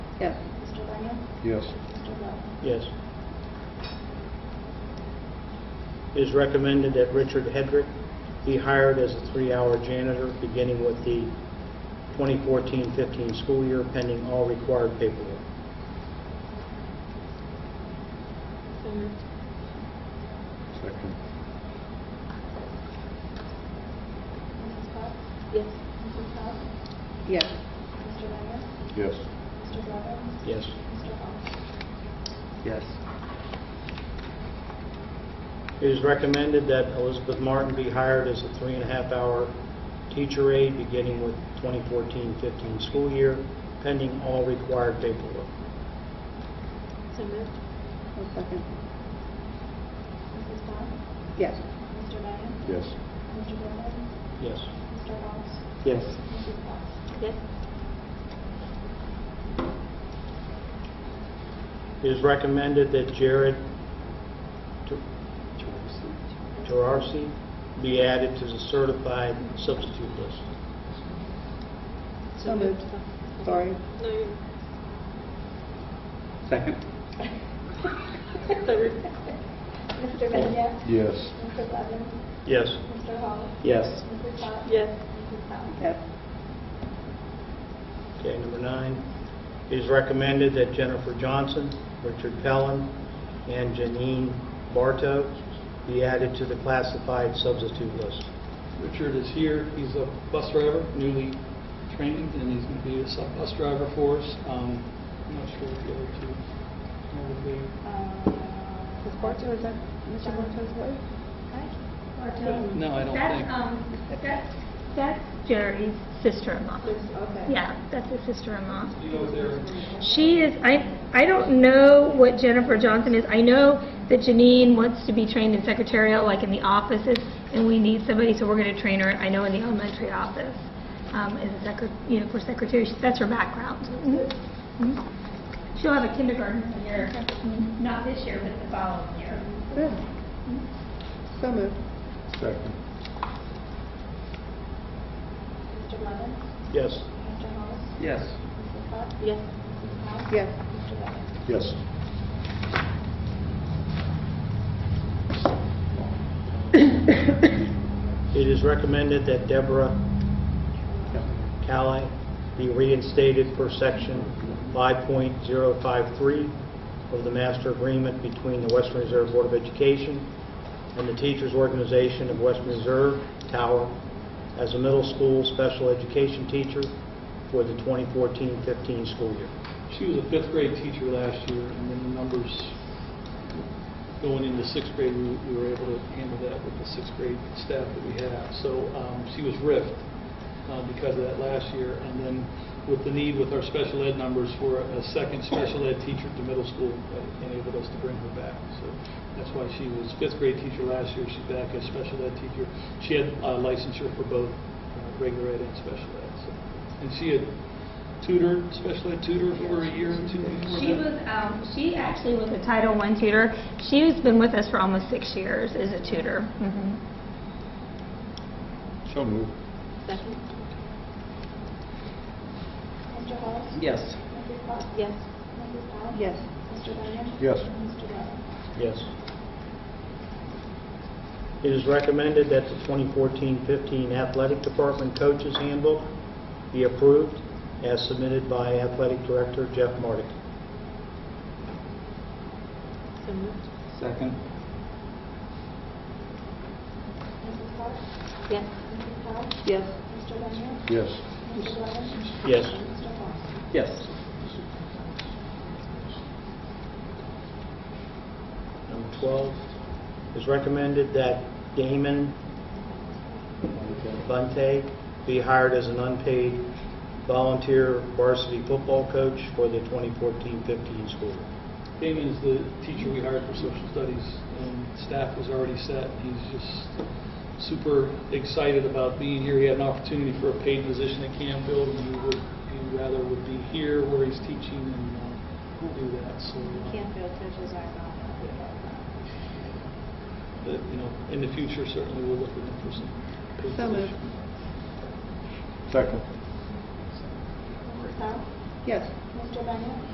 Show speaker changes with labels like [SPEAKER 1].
[SPEAKER 1] Yes.
[SPEAKER 2] Mr. Daniel?
[SPEAKER 3] Yes.
[SPEAKER 2] Mr. Bell?
[SPEAKER 4] Yes. It is recommended that Richard Hedrick be hired as a three-hour janitor, beginning with the 2014-15 school year, pending all required paperwork.
[SPEAKER 2] So moved.
[SPEAKER 3] Second.
[SPEAKER 2] Mrs. Potts?
[SPEAKER 1] Yes.
[SPEAKER 2] Mrs. Powell?
[SPEAKER 1] Yes.
[SPEAKER 2] Mr. Daniel?
[SPEAKER 3] Yes.
[SPEAKER 2] Mr. Blevins?
[SPEAKER 4] Yes.
[SPEAKER 2] Mr. Bell?
[SPEAKER 3] Yes.
[SPEAKER 4] It is recommended that Elizabeth Martin be hired as a three-and-a-half-hour teacher aide, beginning with 2014-15 school year, pending all required paperwork.
[SPEAKER 2] So moved.
[SPEAKER 1] I'll second.
[SPEAKER 2] Mrs. Potts?
[SPEAKER 1] Yes.
[SPEAKER 2] Mr. Daniel?
[SPEAKER 3] Yes.
[SPEAKER 2] Mr. Blevins?
[SPEAKER 4] Yes.
[SPEAKER 2] Mr. Bell?
[SPEAKER 4] Yes.
[SPEAKER 2] Mrs. Potts?
[SPEAKER 1] Yes.
[SPEAKER 4] It is recommended that Jared Ter- Terarsi be added to the certified substitute list.
[SPEAKER 1] So moved. Sorry.
[SPEAKER 2] No, you
[SPEAKER 3] Second.
[SPEAKER 2] So moved. Mr. Daniel?
[SPEAKER 3] Yes.
[SPEAKER 2] Mr. Blevins?
[SPEAKER 4] Yes.
[SPEAKER 2] Mr. Hall?
[SPEAKER 4] Yes.
[SPEAKER 2] Mrs. Potts?
[SPEAKER 1] Yes.
[SPEAKER 2] Mrs. Powell?
[SPEAKER 1] Yes.
[SPEAKER 4] Okay, number nine, it is recommended that Jennifer Johnson, Richard Pellin, and Janine Bartow be added to the classified substitute list.
[SPEAKER 5] Richard is here, he's a bus driver, newly trained, and he's going to be a sub bus driver for us. Um, I'm not sure if the other two are there.
[SPEAKER 1] Ms. Barto, is that Mr. Barto's wife?
[SPEAKER 5] No, I don't think.
[SPEAKER 6] That's, um, that's, that's Jerry's sister-in-law.
[SPEAKER 1] Okay.
[SPEAKER 6] Yeah, that's his sister-in-law.
[SPEAKER 5] You know, they're-
[SPEAKER 6] She is, I, I don't know what Jennifer Johnson is. I know that Janine wants to be trained in secretarial, like in the offices, and we need somebody, so we're going to train her, I know, in the elementary office, um, as a secret, you know, for secretary. She- That's her background. Mhm. She'll have a kindergarten year, not this year, but the following year.
[SPEAKER 1] Good. Mm-hmm. So moved.
[SPEAKER 3] Second.
[SPEAKER 2] Mr. Blevins?
[SPEAKER 4] Yes.
[SPEAKER 2] Mr. Hall?
[SPEAKER 3] Yes.
[SPEAKER 2] Mrs. Potts?
[SPEAKER 1] Yes.
[SPEAKER 2] Mrs. Powell?
[SPEAKER 1] Yes.
[SPEAKER 2] Mr. Blevins?
[SPEAKER 3] Yes.
[SPEAKER 4] It is recommended that Deborah Cali be reinstated per Section 5.053 of the master agreement between the Western Reserve Board of Education and the Teachers Organization of Western Reserve Tower as a middle school special education teacher for the 2014-15 school year.
[SPEAKER 5] She was a fifth grade teacher last year, and then the numbers going into sixth grade, we we were able to handle that with the sixth grade staff that we have. So um, she was ripped uh, because of that last year, and then with the need with our special ed numbers for a second special ed teacher at the middle school, that enabled us to bring her back. So that's why she was fifth grade teacher last year, she's back as special ed teacher. She had uh, licensure for both uh, regular ed and special ed. So- And she had tutored, special ed tutor for a year or two before
[SPEAKER 6] She
[SPEAKER 5] that.
[SPEAKER 6] was, um, she actually was a Title I tutor. She's been with us for almost six years as a tutor. Mhm.
[SPEAKER 3] So moved.
[SPEAKER 1] Second.
[SPEAKER 2] Mr. Hall?
[SPEAKER 3] Yes.
[SPEAKER 2] Mrs. Potts?
[SPEAKER 1] Yes.
[SPEAKER 2] Mrs. Powell?
[SPEAKER 1] Yes.
[SPEAKER 2] Mr. Daniel?
[SPEAKER 3] Yes.
[SPEAKER 2] Mr. Blevins?
[SPEAKER 4] Yes. It is recommended that the 2014-15 Athletic Department Coaches Handbook be approved as submitted by Athletic Director Jeff Mardick.
[SPEAKER 1] So moved.
[SPEAKER 3] Second.
[SPEAKER 2] Mrs. Potts?
[SPEAKER 1] Yes.
[SPEAKER 2] Mrs. Powell?
[SPEAKER 1] Yes.
[SPEAKER 2] Mr. Daniel?
[SPEAKER 3] Yes.
[SPEAKER 2] Mr. Blevins?
[SPEAKER 4] Yes.
[SPEAKER 2] Mr. Hall?
[SPEAKER 3] Yes.
[SPEAKER 4] Number 12, it is recommended that Damon Bunte be hired as an unpaid volunteer varsity football coach for the 2014-15 school year.
[SPEAKER 5] Damon is the teacher we hired for social studies, and staff was already set. He's just super excited about being here. He had an opportunity for a paid position at Campfield, and he would, he rather would be here where he's teaching and uh, do that, so. uh,
[SPEAKER 1] Canfield coaches are not happy about that.
[SPEAKER 5] But, you know, in the future, certainly we'll look at him for some paid
[SPEAKER 1] So moved.
[SPEAKER 5] position.
[SPEAKER 3] Second.
[SPEAKER 2] Mrs. Powell?
[SPEAKER 1] Yes.
[SPEAKER 2] Mr. Daniel?